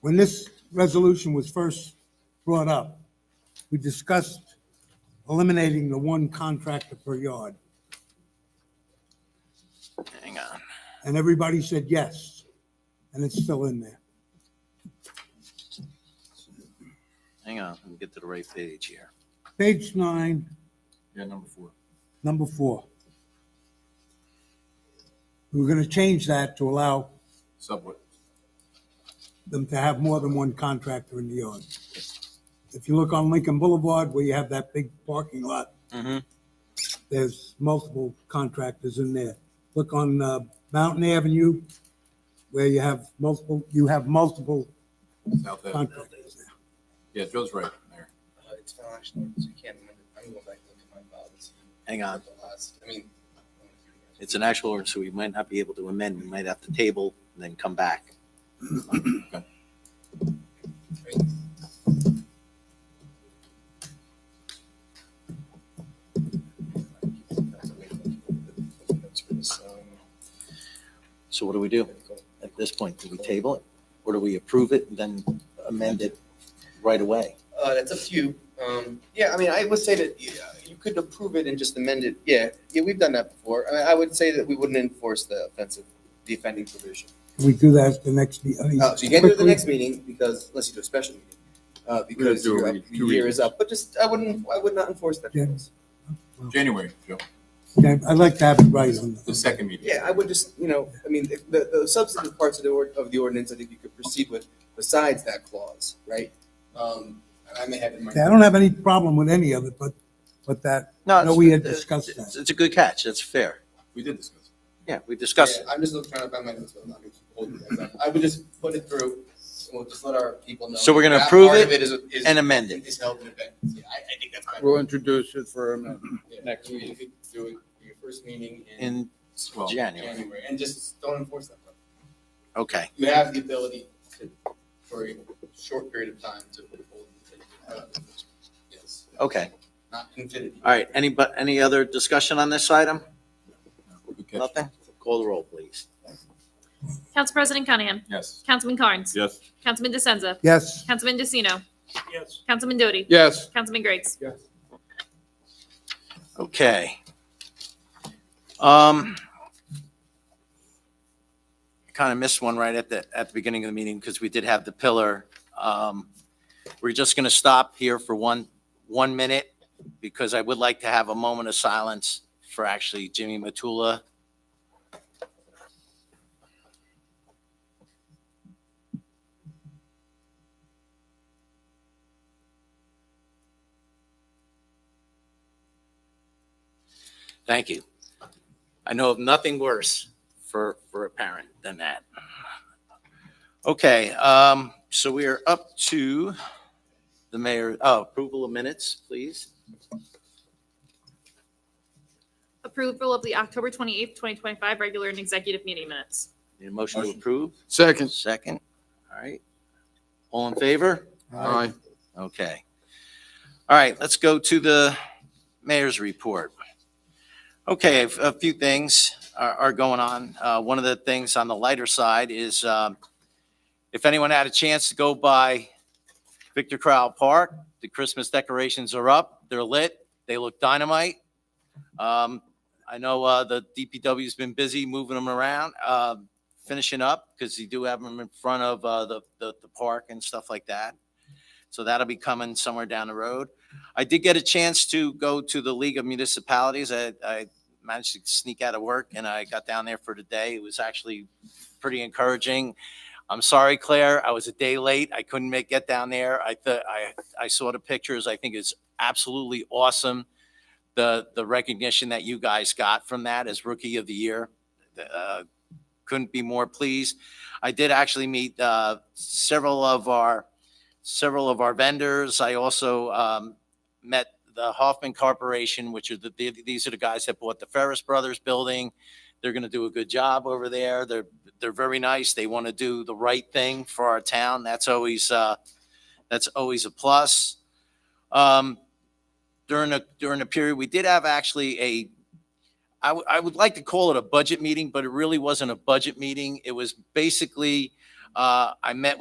when this resolution was first brought up, we discussed eliminating the one contractor per yard, Hang on. and everybody said yes, and it's still in there. Hang on. Let me get to the right page here. Page nine, Yeah, number four. number four. We We're gonna change that to allow Subway. them to have more than one contractor in the yard. If you look on Lincoln Boulevard, where you have that big parking lot, Mm-hmm. there's multiple contractors in there. Look on uh, Mountain Avenue, where you have multiple, you have multiple South Ave. contractors there. Yeah, Joe's right there. Uh, It's not actually, so you can't amend it. I'm going back to look at my files. Hang on. The last, I mean. It's an actual ordinance, so we might not be able to amend. We might have to table and then come back. So what do we do at this point? Do we table it? Or do we approve it and then amend it right away? Uh, that's up to you. Um, yeah, I mean, I would say that yeah, you could approve it and just amend it. Yeah, yeah, we've done that before. I, mean, I would say that we wouldn't enforce the offensive, the offending provision. Can We do that at the next, me- I mean, Uh, so you can't do it at the quickly? next meeting because, unless you do a special meeting, uh, because do it your every up- two your year weeks. is up. But just, I wouldn't, I would not enforce that. Yeah. January, Joe, Okay, I'd like to have it right on. the second meeting. Yeah, I would just, you know, I mean, the- the, the substantive parts of the, ord- of the ordinance, I think you could proceed with besides that clause, right? Um, and I may have in my. Okay, I don't have any problem with any of it, but, but that, no, we had discussed It's that. it's a good catch. That's fair. We did discuss. Yeah, we discussed it. Yeah, I'm just looking- trying to find my notes, but I'm not gonna keep holding you guys up. I would just put it through, and we'll just let our people know. So we're gonna that approve part it of is- is- and amend it. Is held in effect. Yeah, I, I think that's fine. We'll introduce it for a minute. Yeah, Next. You could do it, for your first meeting in in Well, January. January, and just don't enforce that. part. Okay. You have the ability to, for a short period of time to withhold. uh, Yes, Okay. not infinity. All right. Any, but any other discussion on this item? good catch. Nothing? Call the roll, please. Council President Cunningham. Yes. Councilman Carnes. Yes. Councilman DeSenza. Yes, Councilman DeCino. Yes. Councilman Doty. Yes, Councilman Griggs. Okay. Um, kind of missed one right at the, at the beginning of the meeting because we did have the pillar. Um, we're just going to stop here for one, one minute because I would like to have a moment of silence for actually Jimmy Matula. Thank you. I know of nothing worse for, for a parent than that. Okay, um, so we are up to the mayor, oh, approval of minutes, please. Approval of the October 28th, 2025 regular and executive meeting minutes. Need a motion to Motion. approve? second. Second, all right. All in favor? Aye. Okay. All right, let's go to the mayor's report. Okay, a- a few things are, are going on. Uh, one of the things on the lighter side is, um, if anyone had a chance to go by Victor Crowell Park, the Christmas decorations are up, they're lit, they look dynamite. Um, I know, uh, the DPW's been busy moving them around, uh, finishing up, because you do have them in front of, uh, the, the, the park and stuff like that. So that'll be coming somewhere down the road. I did get a chance to go to the League of Municipalities. I, I managed to sneak out of work and I got down there for the day. It was actually pretty encouraging. I'm sorry, Claire, I was a day late. I couldn't make, get down there. I thought, I, I saw the pictures. I think it's absolutely awesome. The, the recognition that you guys got from that as Rookie of the Year. Uh, Couldn't be more pleased. I did actually meet, uh, several of our, several of our vendors. I also um, met the Hoffman Corporation, which are the, the- these are the guys that bought the Ferris Brothers building. They're going to do a good job over there. They're, they're very nice. They want to do the right thing for our town. That's always, uh, that's always a plus. Um, During the, during the period, we did have actually a, I would, I would like to call it a budget meeting, but it really wasn't a budget meeting. It was basically, uh, I met